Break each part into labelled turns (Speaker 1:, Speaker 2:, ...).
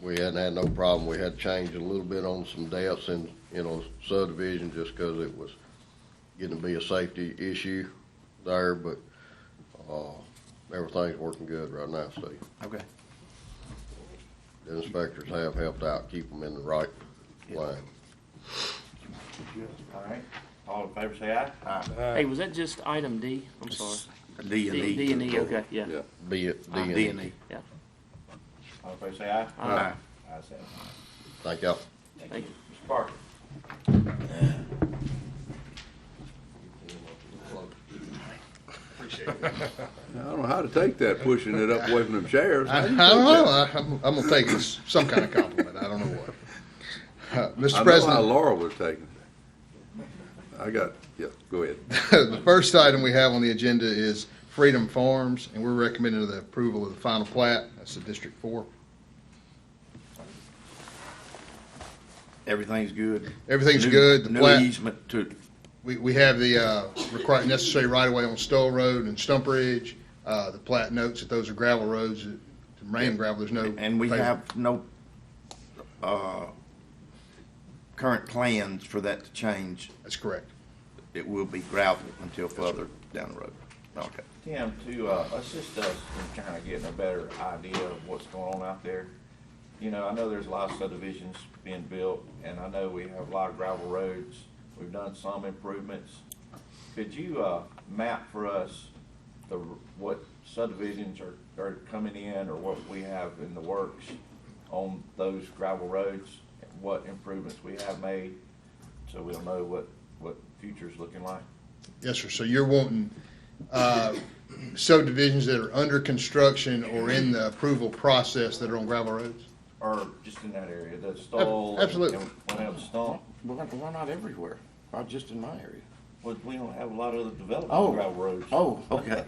Speaker 1: we hadn't had no problem. We had changed a little bit on some depths in, you know, subdivision just because it was getting to be a safety issue there, but, uh, everything's working good right now, Steve.
Speaker 2: Okay.
Speaker 1: The inspectors have helped out, keep them in the right lane.
Speaker 2: All right. All in favor, say aye. Aye.
Speaker 3: Hey, was that just item D? I'm sorry.
Speaker 4: D and
Speaker 3: D
Speaker 4: E.
Speaker 3: D and E, okay, yeah.
Speaker 1: Be it, D and
Speaker 4: D and E.
Speaker 2: All in favor, say aye.
Speaker 3: All right,
Speaker 2: Ayes have it.
Speaker 1: Thank y'all.
Speaker 3: Thank you.
Speaker 2: Mr. Parker.
Speaker 5: I don't know how to take that, pushing it up away from them chairs.
Speaker 6: I, I don't know. I, I'm, I'm going to take it as some kind of compliment. I don't know what. Uh,
Speaker 5: I
Speaker 6: Mr.
Speaker 5: know how
Speaker 6: President,
Speaker 5: Laura was taking it. I got, yeah, go ahead.
Speaker 6: the first item we have on the agenda is Freedom Farms, and we're recommending the approval of the final plat. That's the District Four.
Speaker 4: Everything's good.
Speaker 6: Everything's
Speaker 4: New-
Speaker 6: good. The
Speaker 4: New
Speaker 6: plat-
Speaker 4: easement to,
Speaker 6: We, we have the uh, required necessary right of way on Stoll Road and Stump Ridge. Uh, the plat notes that those are gravel roads, that- rain gravel, there's no.
Speaker 4: and we
Speaker 6: pavement.
Speaker 4: have no, uh, current plans for that to change.
Speaker 6: That's correct.
Speaker 4: It will be gravel until further down the road. Okay.
Speaker 2: Tim, to uh, assist us in kind of getting a better idea of what's going on out there. You know, I know there's a lot of subdivisions being built, and I know we have a lot of gravel roads. We've done some improvements. Could you uh, map for us the, r- what subdivisions are, are coming in, or what we have in the works on those gravel roads? What improvements we have made, so we'll know what, what future's looking like?
Speaker 6: Yes, sir. So you're wanting uh, subdivisions that are under construction or in the approval process that are on gravel roads?
Speaker 2: or just in that area, the stall.
Speaker 6: absolutely.
Speaker 2: and Went out the stall,
Speaker 4: We're, we're not everywhere, not just in my area.
Speaker 2: but we don't have a lot of the development
Speaker 4: Oh.
Speaker 2: on gravel roads.
Speaker 4: Oh, okay.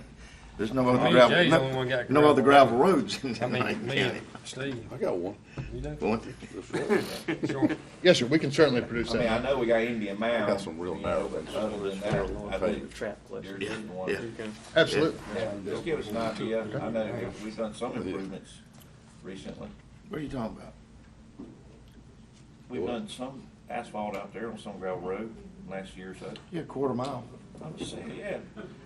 Speaker 4: There's no
Speaker 7: Me
Speaker 4: other
Speaker 7: and
Speaker 4: gravel,
Speaker 7: Jay's the only
Speaker 4: no,
Speaker 7: one got
Speaker 4: no other gravel roads in
Speaker 7: I mean,
Speaker 4: Lane
Speaker 7: me and
Speaker 4: County.
Speaker 7: Steve,
Speaker 5: I got one.
Speaker 7: you know,
Speaker 5: That's right.
Speaker 7: sure.
Speaker 6: Yes, sir. We can certainly produce
Speaker 2: I mean, I
Speaker 6: that.
Speaker 2: know we got Indian Mound.
Speaker 5: got some real
Speaker 2: you know,
Speaker 5: narrow
Speaker 2: but
Speaker 5: ones.
Speaker 2: Other than that, I
Speaker 5: Real
Speaker 2: think
Speaker 3: Trap
Speaker 2: there
Speaker 3: question.
Speaker 2: isn't one.
Speaker 4: yeah.
Speaker 3: Okay.
Speaker 6: Absolutely.
Speaker 2: Yeah, Just give us an idea, I know that we've done some improvements recently,
Speaker 4: What are you talking about?
Speaker 2: we've done some asphalt out there on some gravel road last year or so.
Speaker 4: Yeah, quarter mile.
Speaker 2: I'm just saying, yeah,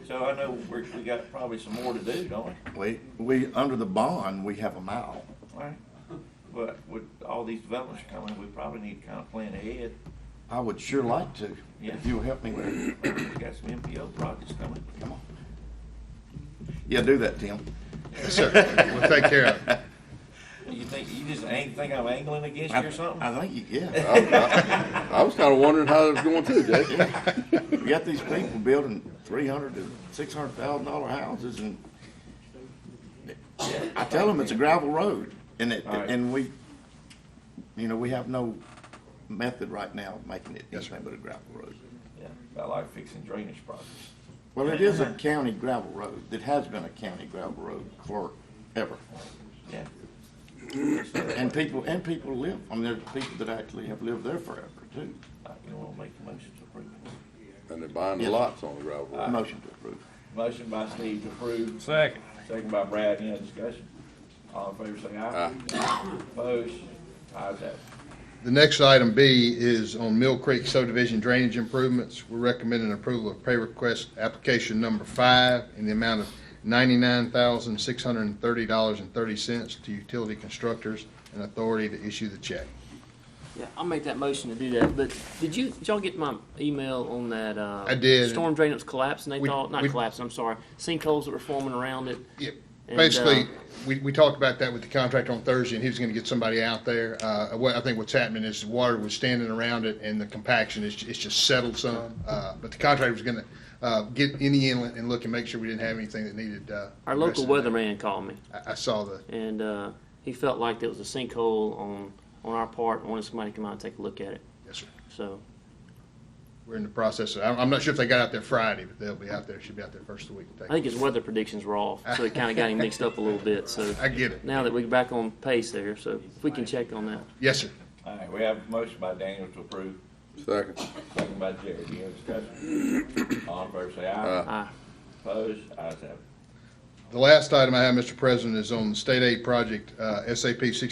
Speaker 2: so I know we're, we got probably some more to do, don't we?
Speaker 4: We, we, under the bond, we have a mile.
Speaker 2: Right? But with all these developments coming, we probably need to kind of plan ahead.
Speaker 4: I would sure like to,
Speaker 2: Yeah.
Speaker 4: if you'll help me with it.
Speaker 2: We got some MPO projects coming.
Speaker 4: Come on. Yeah, do that, Tim.
Speaker 6: Yes, sir. We'll take care of it.
Speaker 2: You think, you just ain't think I'm angling against you
Speaker 4: I-
Speaker 2: or something?
Speaker 4: I think, you- yeah.
Speaker 5: I I was kinda wondering how it was going to, Jay.
Speaker 4: We got these people building three hundred to six hundred thousand dollar houses and I tell them it's a gravel road and it,
Speaker 2: All right.
Speaker 4: and we, you know, we have no method right now of making it anything but a gravel road.
Speaker 2: Yeah, I like fixing drainage projects.
Speaker 4: Well, it is a county gravel road. It has been a county gravel road forever.
Speaker 2: Yeah.
Speaker 4: And people, and people live, I mean, there's people that actually have lived there forever too.
Speaker 2: Uh, You don't wanna make the motion to approve. it.
Speaker 5: And they're buying the lots on the gravel road.
Speaker 4: Motion to approve.
Speaker 2: Motion by Steve to approve,
Speaker 7: Second.
Speaker 2: second by Brad, any other discussion? All in favor say aye. Opposed, ayes have it.
Speaker 6: The next item B is on Mill Creek subdivision drainage improvements. We're recommending approval of pay request application number five in the amount of ninety-nine thousand, six hundred and thirty dollars and thirty cents to utility constructors and authority to issue the check.
Speaker 3: Yeah, I'll make that motion to do that, but did you, did y'all get my email on that, uh?
Speaker 6: I did.
Speaker 3: Storm drain that was collapsing, they
Speaker 6: We-
Speaker 3: thought, not
Speaker 6: we-
Speaker 3: collapsing, I'm sorry, sinkholes that were forming around it.
Speaker 6: Yep.
Speaker 3: And,
Speaker 6: Basically,
Speaker 3: uh,
Speaker 6: we, we talked about that with the contractor on Thursday, and he was gonna get somebody out there. Uh, what, I think what's happening is the water was standing around it, and the compaction is, it's just settled some. Uh, but the contractor was gonna, uh, get in the inlet and look and make sure we didn't have anything that needed, uh.
Speaker 3: Our local
Speaker 6: addressing.
Speaker 3: weatherman called me,
Speaker 6: I, I saw the,
Speaker 3: and, uh, he felt like there was a sinkhole on, on our part, and wanted somebody to come out and take a look at it,
Speaker 6: yes, sir.
Speaker 3: so.
Speaker 6: We're in the process. I'm, I'm not sure if they got out there Friday, but they'll be out there, should be out there first of the week.
Speaker 3: I think his weather predictions were off, so it kinda got him mixed up a little bit, so.
Speaker 6: I get it.
Speaker 3: Now that we're back on pace there, so if we can check on that.
Speaker 6: Yes, sir.
Speaker 2: All right, we have a motion by Daniel to approve,
Speaker 5: Second.
Speaker 2: second by Jerry, any other discussion? All in favor say aye.
Speaker 3: Aye.
Speaker 2: Opposed, ayes have it.
Speaker 6: The last item I have, Mr. President, is on the state aid project, uh, SAP sixty